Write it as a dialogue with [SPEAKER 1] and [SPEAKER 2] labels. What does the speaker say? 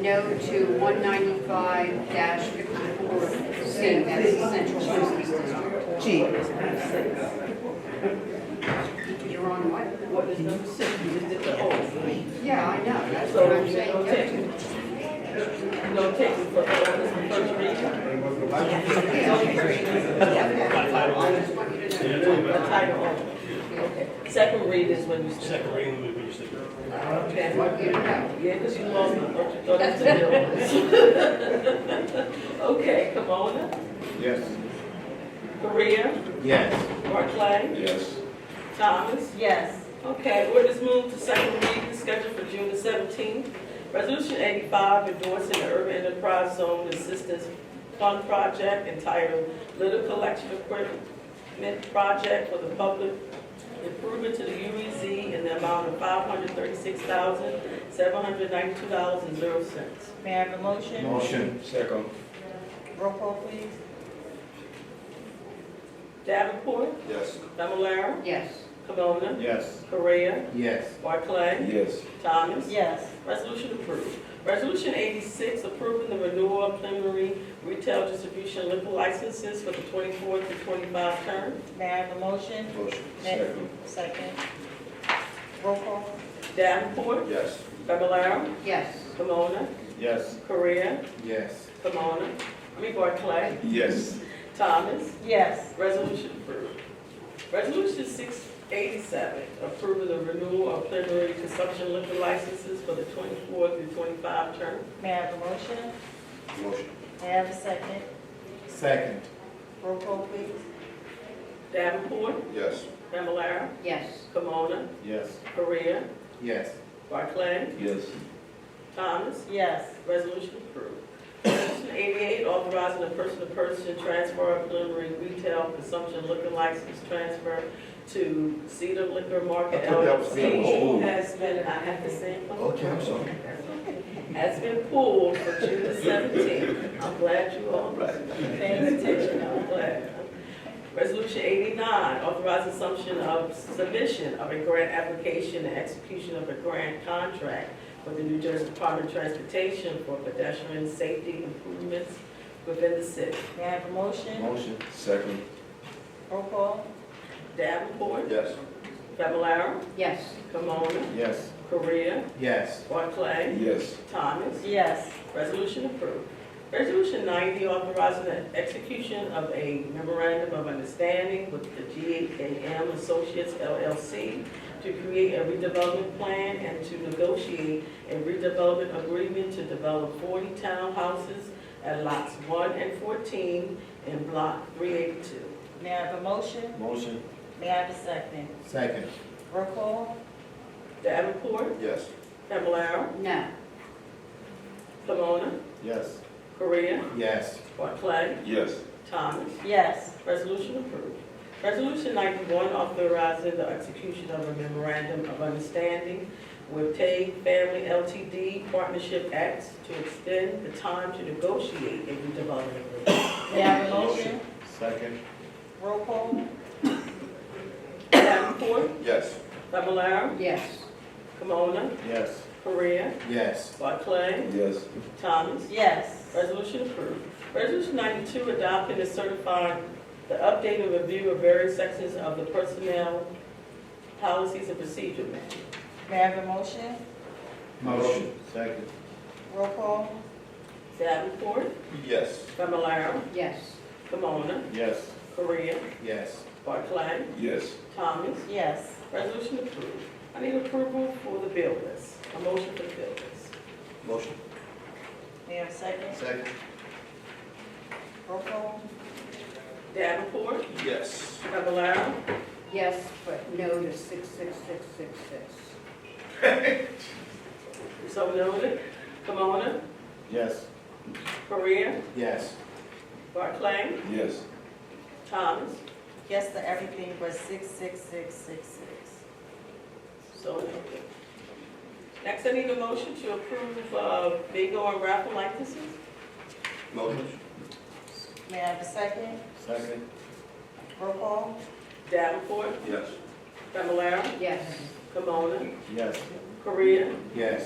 [SPEAKER 1] no to one ninety-five fifty-four C, that's the central business district.
[SPEAKER 2] G.
[SPEAKER 1] You're on what?
[SPEAKER 2] What is number six? You just did the whole thing.
[SPEAKER 1] Yeah, I know, that's
[SPEAKER 2] So
[SPEAKER 1] what
[SPEAKER 2] we're
[SPEAKER 1] I'm
[SPEAKER 2] gonna take
[SPEAKER 1] saying.
[SPEAKER 2] it. We're gonna take it for all this first reading.
[SPEAKER 1] Yeah, okay. I just want you to know.
[SPEAKER 2] The title only. Okay. Second read is when you start.
[SPEAKER 3] Second reading will be used to-
[SPEAKER 1] I just want you to know.
[SPEAKER 2] Yeah, because you lost me, don't you thought it was a bill? Okay, Kimona,
[SPEAKER 4] Yes.
[SPEAKER 2] Korea,
[SPEAKER 4] Yes.
[SPEAKER 2] Barclay,
[SPEAKER 4] Yes.
[SPEAKER 2] Thomas.
[SPEAKER 5] Yes.
[SPEAKER 2] Okay, orders moved to second reading scheduled for June the seventeenth. Resolution eighty-five endorsing the Urban Enterprise Zone Assistance Fund Project entitled Litter Collection Equipment Project for the Public Improvement to the UEZ in the amount of five hundred thirty-six thousand, seven hundred ninety-two dollars and zero cents.
[SPEAKER 5] May I have a motion?
[SPEAKER 4] Motion. Second.
[SPEAKER 5] Roll call, please.
[SPEAKER 2] Davenport,
[SPEAKER 4] Yes.
[SPEAKER 2] Fablelaro,
[SPEAKER 1] Yes,
[SPEAKER 2] Camona,
[SPEAKER 4] Yes.
[SPEAKER 2] Correa,
[SPEAKER 4] Yes.
[SPEAKER 2] Barclay,
[SPEAKER 4] Yes.
[SPEAKER 2] Thomas.
[SPEAKER 5] Yes.
[SPEAKER 2] Resolution approved. Resolution eighty-six, approving the renewal of preliminary retail distribution liquor licenses for the twenty-four to twenty-five term.
[SPEAKER 5] May I have a motion?
[SPEAKER 4] Motion.
[SPEAKER 5] May- Second. Roll call?
[SPEAKER 2] Davenport,
[SPEAKER 4] Yes.
[SPEAKER 2] Fablelaro,
[SPEAKER 1] yes,
[SPEAKER 2] Camona,
[SPEAKER 4] Yes.
[SPEAKER 2] Correa,
[SPEAKER 4] Yes.
[SPEAKER 2] Camona, I mean Barclay,
[SPEAKER 4] Yes.
[SPEAKER 2] Thomas.
[SPEAKER 5] Yes.
[SPEAKER 2] Resolution approved. Resolution six eighty-seven, approving the renewal of preliminary consumption liquor licenses for the twenty-four to twenty-five term.
[SPEAKER 5] May I have a motion?
[SPEAKER 4] Motion.
[SPEAKER 5] May I have a second?
[SPEAKER 4] Second.
[SPEAKER 5] Roll call, please.
[SPEAKER 2] Davenport,
[SPEAKER 4] Yes.
[SPEAKER 2] Fablelaro,
[SPEAKER 1] yes,
[SPEAKER 2] Camona,
[SPEAKER 4] Yes.
[SPEAKER 2] Correa,
[SPEAKER 4] Yes.
[SPEAKER 2] Barclay,
[SPEAKER 4] Yes.
[SPEAKER 2] Thomas,
[SPEAKER 5] Yes.
[SPEAKER 2] resolution approved. Resolution eighty-eight, authorizing a person-to-person transfer of preliminary retail consumption liquor license transfer to Cedar Liquor Market
[SPEAKER 4] I thought that was the other
[SPEAKER 2] LLC
[SPEAKER 4] one.
[SPEAKER 2] has been, I have the same one,
[SPEAKER 4] Okay, I'm sorry.
[SPEAKER 2] has been pulled for June the seventeenth. I'm glad you all paying attention, I'm glad. Resolution eighty-nine, authorize assumption of submission of a grant application and execution of a grant contract with the New Jersey Department of Transportation for pedestrian safety improvements within the city.
[SPEAKER 5] May I have a motion?
[SPEAKER 4] Motion. Second.
[SPEAKER 5] Roll call?
[SPEAKER 2] Davenport,
[SPEAKER 4] Yes.
[SPEAKER 2] Fablelaro,
[SPEAKER 1] yes,
[SPEAKER 2] Camona,
[SPEAKER 4] Yes.
[SPEAKER 2] Korea,
[SPEAKER 4] Yes.
[SPEAKER 2] Barclay,
[SPEAKER 4] Yes.
[SPEAKER 2] Thomas.
[SPEAKER 5] Yes.
[SPEAKER 2] Resolution approved. Resolution ninety, authorizing the execution of a memorandum of understanding with the GAM Associates LLC to create a redevelopment plan and to negotiate a redevelopment agreement to develop forty townhouses at lots one and fourteen in block three eighty-two.
[SPEAKER 5] May I have a motion?
[SPEAKER 4] Motion.
[SPEAKER 5] May I have a second?
[SPEAKER 4] Second.
[SPEAKER 5] Roll call?
[SPEAKER 2] Davenport,
[SPEAKER 4] Yes.
[SPEAKER 2] Fablelaro,
[SPEAKER 1] no,
[SPEAKER 2] Pomona,
[SPEAKER 4] Yes.
[SPEAKER 2] Korea,
[SPEAKER 4] Yes.
[SPEAKER 2] Barclay,
[SPEAKER 4] Yes.
[SPEAKER 2] Thomas.
[SPEAKER 5] Yes.
[SPEAKER 2] Resolution approved. Resolution ninety-one, authorizing the execution of a memorandum of understanding with Tay Family LTD Partnership Acts to extend the time to negotiate a redevelopment agreement.
[SPEAKER 5] May I have a motion?
[SPEAKER 4] Second.
[SPEAKER 5] Roll call?
[SPEAKER 2] Davenport,
[SPEAKER 4] Yes.
[SPEAKER 2] Fablelaro,
[SPEAKER 1] yes,
[SPEAKER 2] Camona,
[SPEAKER 4] Yes.
[SPEAKER 2] Korea,
[SPEAKER 4] Yes.
[SPEAKER 2] Barclay,
[SPEAKER 4] Yes.
[SPEAKER 2] Thomas.
[SPEAKER 5] Yes.
[SPEAKER 2] Resolution approved. Resolution ninety-two, adopting and certifying the updated review of various sections of the personnel policies and procedure manual.
[SPEAKER 5] May I have a motion?
[SPEAKER 4] Motion. Second.
[SPEAKER 5] Roll call?
[SPEAKER 2] Davenport,
[SPEAKER 4] Yes.
[SPEAKER 2] Fablelaro,
[SPEAKER 1] yes,
[SPEAKER 2] Camona,
[SPEAKER 4] Yes.
[SPEAKER 2] Korea,
[SPEAKER 4] Yes.
[SPEAKER 2] Barclay,
[SPEAKER 4] Yes.
[SPEAKER 2] Thomas.
[SPEAKER 5] Yes.
[SPEAKER 2] Resolution approved. I need approval for the bill list. A motion for the bill list.
[SPEAKER 4] Motion.
[SPEAKER 5] May I have a second?
[SPEAKER 4] Second.
[SPEAKER 5] Roll call?
[SPEAKER 2] Davenport,
[SPEAKER 4] Yes.
[SPEAKER 2] Fablelaro,
[SPEAKER 1] yes, but no to six, six, six, six, six,
[SPEAKER 2] so noted. Camona,
[SPEAKER 4] Yes.
[SPEAKER 2] Korea,
[SPEAKER 4] Yes.
[SPEAKER 2] Barclay,
[SPEAKER 4] Yes.
[SPEAKER 2] Thomas.
[SPEAKER 5] Yes to everything but six, six, six, six, six.
[SPEAKER 2] So noted. Next, I need a motion to approve uh, bingo and raffle licenses.
[SPEAKER 4] Motion.
[SPEAKER 5] May I have a second?
[SPEAKER 4] Second.
[SPEAKER 5] Roll call?
[SPEAKER 2] Davenport,
[SPEAKER 4] Yes.
[SPEAKER 2] Fablelaro,
[SPEAKER 1] yes.
[SPEAKER 2] Camona,
[SPEAKER 4] Yes.
[SPEAKER 2] Korea,
[SPEAKER 4] Yes.